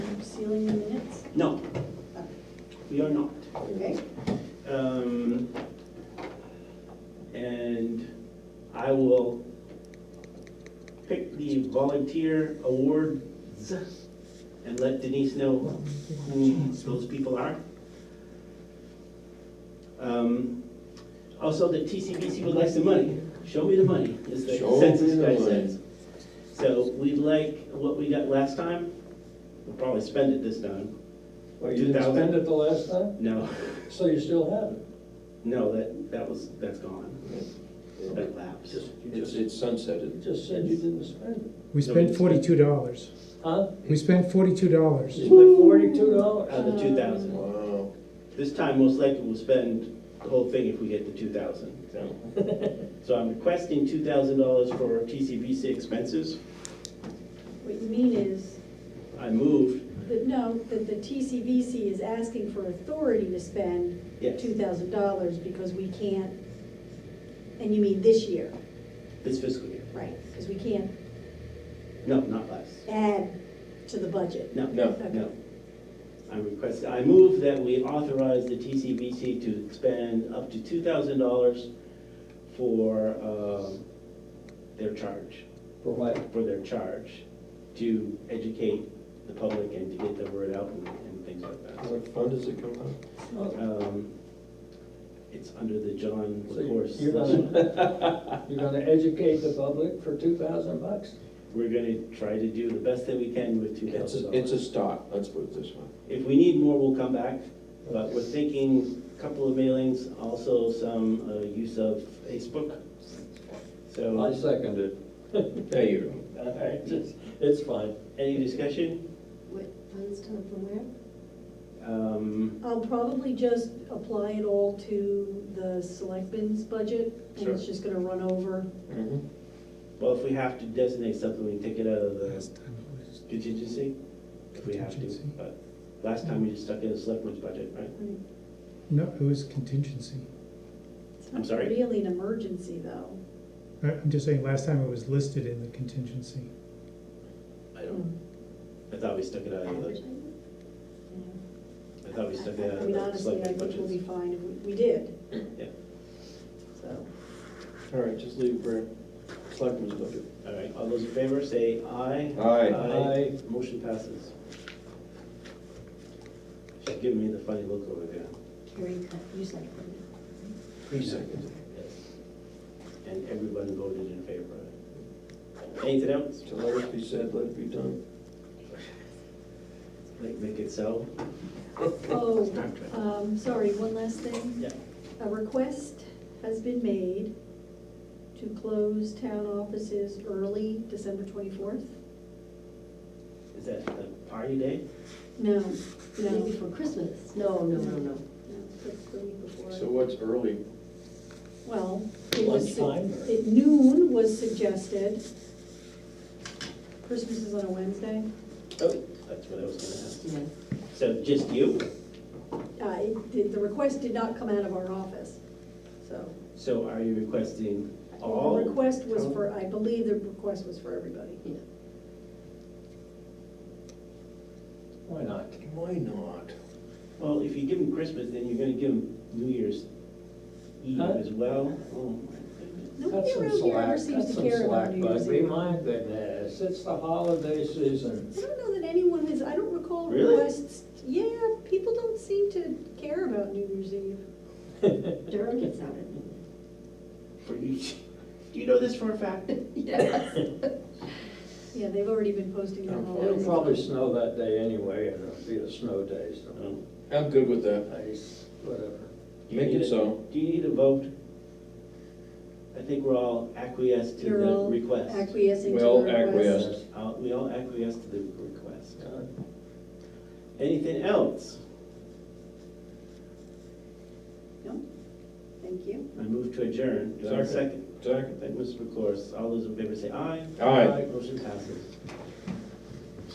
doing the minutes? No, we are not. Okay, Um, And I will pick the volunteer awards and let Denise know who those people are. Um, Also, the TCBC would like the money. Show me the money, is the Show me census the guy money. says. So we'd like what we got last time. We'll probably spend it this time. Well, you didn't 2000. spend it the last time, No, so you still have it. no, that, that was, that's gone. That lapsed. You It's, just- it's sunsetted. you just said you didn't spend We spent forty-two dollars. it. Huh? We spent forty-two You dollars. spent forty-two dollars. Out of the two thousand. Oh. Wow. This time, most likely, we'll spend the whole thing if we get to two thousand. So so I'm requesting two thousand dollars for TCVC expenses. what you mean is, I moved, that no, that the TCVC is asking for authority to spend yes, two thousand dollars because we can't, and you mean this year, this fiscal year. right? Because we can't No, not last. add to the budget. No, No. no. I'm requesting, I move that we authorize the TCVC to spend up to two thousand dollars for, um, their charge. For what? for their charge to educate the public and to get the word out and, and things like that. What fund does it come out? of? Oh, Um, It's under the John So LaCourse. you're gonna, you're gonna educate the public for two thousand bucks? We're gonna try to do the best that we can with two It's thousand a, it's a dollars. stock, let's put it this way. If we need more, we'll come back, but we're thinking a couple of mailings, also some uh, use of Facebook. I So, second it. There you All right, It's, it's fine. any discussion? What funds come from where? Um, I'll probably just apply it all to the selectmen's budget, and it's Sure. just gonna run over. go. Mhm. Well, if we have to designate something, we take it out of the Last time it was- contingency, if we have to, Contingency. but last time we just stuck it in the selectmen's budget, right? No, it was contingency. It's I'm not sorry? Really an emergency, though. I- I'm just saying, last time it was listed in the contingency. I Hmm. don't. Hmm. I thought we stuck it out of the, Advertising? I thought we stuck it out I of mean, the honestly, I selectmen's think we'll be budget. fine, and we, we did. Yeah. So, All right, just leave it for selectmen's budget. All right, all those in favor, say aye. Aye. Aye. Motion passes. She's giving me the funny look over there. Carrie, cut, you said. Three seconds. Yes. And everyone voted in favor of it. Anything else? So let it be said, let it be done. Like, make it so? oh, um, sorry, one last thing. Yeah. A request has been made to close town offices early December twenty-fourth. Is that the party day? No, The no, day before Christmas? No, no, no, no. no, that's the week before. So what's early? Well, it was, Lunchtime or- at noon was suggested. Christmas is on a Wednesday. Oh, that's what I was gonna ask. Yeah. So just you? Uh, it did- the request did not come out of our office, so. So are you requesting all? The request was for, I believe the request was for everybody. Yeah. Why not? Why not? Well, if you give them Christmas, then you're gonna give them New Year's Eve Huh? as well. Oh my goodness. Nobody That's some around here ever slack, seems that's to some care about slack, New Year's but be Eve. my goodness, it's the holiday season. I don't know that anyone has, I don't recall Really? requests, yeah, people don't seem to care about New Year's Eve. Durham gets out at noon. For you, do you know this for a fact? Yes. Yeah, they've already been posting them all Oh, It'll over. probably snow that day anyway, and it'll be a snow day, so Um, I'm good with that. ice, whatever. do you Make need it a- so. Do you need a vote? I think we're all acquiesced to You're the all request. acquiescing to the Well, request. acquiesce. Yes. Uh, We all acquiesce to the request. Uh, Anything else? No? Thank you. I move to adjourn. Do I have a Second. second? Second. Thank Mr. McClure. All those in favor say aye. Aye. Motion passes.